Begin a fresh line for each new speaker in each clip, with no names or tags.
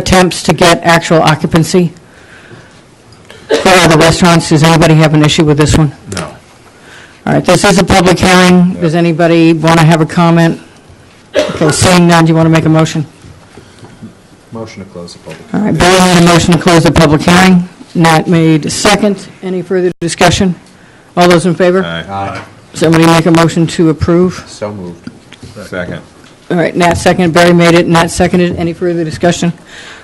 attempts to get actual occupancy for other restaurants? Does anybody have an issue with this one?
No.
All right, this is a public hearing. Does anybody want to have a comment? Okay, seeing none, do you want to make a motion?
Motion to close the public.
All right, Barry made a motion to close the public hearing. Nat made a second. Any further discussion? All those in favor?
Aye.
Somebody make a motion to approve?
So moved. Second.
All right, Nat seconded, Barry made it, Nat seconded. Any further discussion?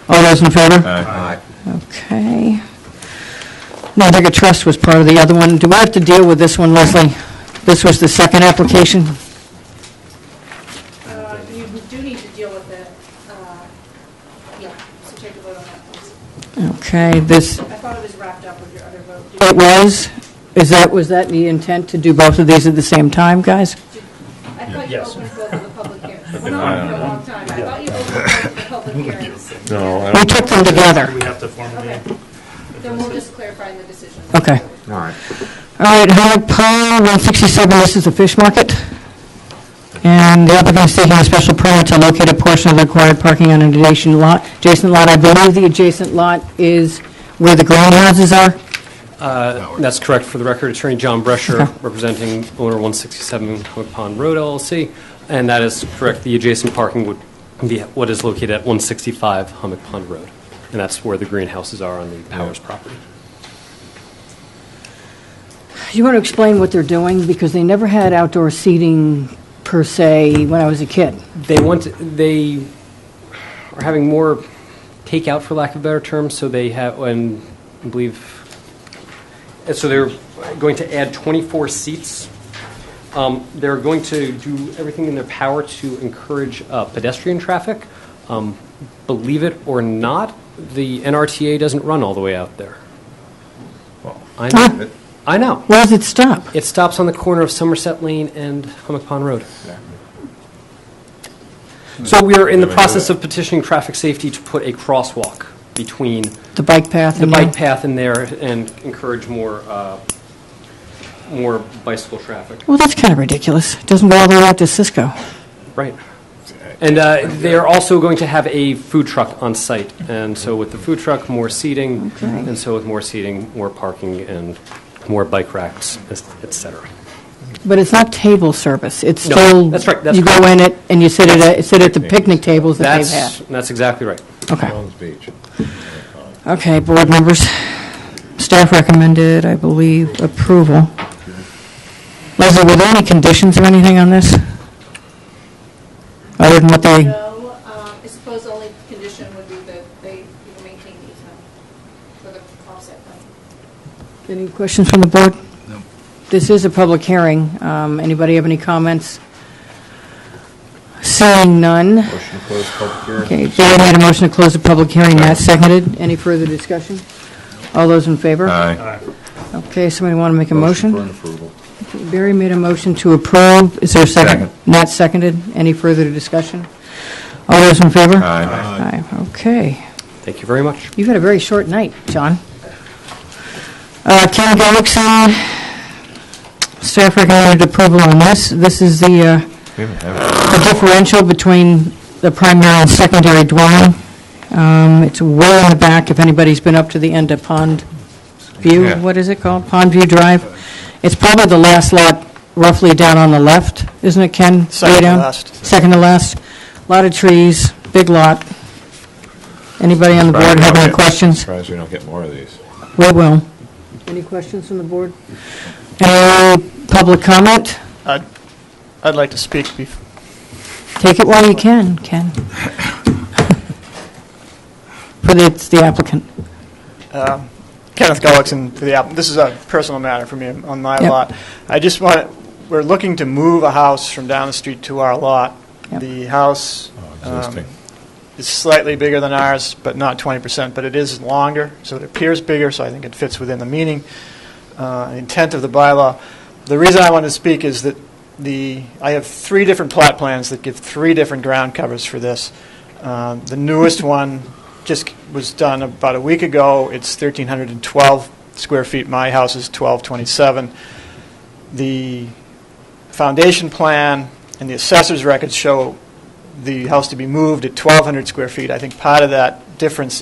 All those in favor?
Aye.
Okay. Northern Trust was part of the other one. Do I have to deal with this one, Leslie? This was the second application?
Uh, You do need to deal with it, uh, yeah, so take a vote on that, please.
Okay, this,
I thought it was wrapped up with your other vote. Did-
it was, is that, was that the intent to do both of these at the same time, guys?
did- I thought you opened both of the public hearings. I've been on for a long time. I thought you opened both of the public hearings.
We took them together.
We have to formally,
Okay. Then we'll just clarify in the decision.
Okay.
All right.
All right, Howard Pond, 167, this is the fish market. And the applicant is seeking a special permit to locate a portion of the required parking on an adjacent lot. Adjacent lot, I believe the adjacent lot is where the greenhouses are.
Uh, That's correct. For the record, Attorney John Brescher, representing owner 167 Hook Pond Road LLC, and that is correct. The adjacent parking would be what is located at 165 Hummock Pond Road, and that's where the greenhouses are on the Powers property.
Do you want to explain what they're doing? Because they never had outdoor seating per se when I was a kid.
They want, they are having more takeout, for lack of a better term, so they have, and I believe, and so they're going to add 24 seats. Um, They're going to do everything in their power to encourage uh, pedestrian traffic. Um, Believe it or not, the NRTA doesn't run all the way out there. I know, I know.
Where does it stop?
It stops on the corner of Somerset Lane and Hummock Pond Road. So we are in the process of petitioning traffic safety to put a crosswalk between
The bike path?
the
and
bike path in there and encourage more, uh, more bicycle traffic.
Well, that's kind of ridiculous. It Doesn't go all the way out to Cisco.
Right. And uh, they are also going to have a food truck on site, and so with the food truck, more seating, and so with more seating, more parking, and more bike racks, et cetera.
But it's not table service, it's
No,
still...
that's right, that's
You go
correct.
in it, and you sit at, a- sit at the picnic tables that they've
That's,
had.
that's exactly right.
Okay,
Jones Beach.
okay, board members, staff recommended, I believe, approval. Leslie, were there any conditions or anything on this? Other than what they,
No, um, I suppose the only condition would be that they you know, maintain the easement for the offset.
any questions from the board? No. This is a public hearing, Um, anybody have any comments? Seeing none,
Motion to close public hearing.
okay, Barry made a motion to close the public hearing, Matt seconded, any further discussion? All those in favor?
Aye.
Okay, somebody want to make a
For an
motion?
approval.
Barry made a motion to approve. Is there a second?
Second.
Not seconded. Any further discussion? All those in favor?
Aye.
Aye. Okay.
Thank you very much.
You've had a very short night, John. Uh, Ken Gullickson, staff recommended approval on this. This is the uh,
We haven't had
the differential between the primary and secondary dwelling. Um, It's way in the back, if anybody's been up to the end of Pond View,
Yeah.
what is it called? Pond View Drive. It's probably the last lot roughly down on the left, isn't it, Ken? Way
Second to
down?
last.
Second to last. Lot of trees, big lot. Anybody on the board have any questions?
Surprised we don't get more of these.
We will. Any questions from the board? Any public comment?
I'd, I'd like to speak bef-
Take it while you can, Ken. But it's the applicant.
Um, Kenneth Gullickson for the app. This is a personal matter for me on my
Yep.
lot. I just want, we're looking to move a house from down the street to our lot.
Yep.
The house um,
Existing.
is slightly bigger than ours, but not 20%, but it is longer, so it appears bigger, so I think it fits within the meaning, uh, intent of the bylaw. The reason I wanted to speak is that the, I have three different plot plans that give three different ground covers for this. Um, The newest one just was done about a week ago. It's 1,312 square feet. My house is 1,227. The foundation plan and the assessor's records show the house to be moved at 1,200 square feet. I think part of that difference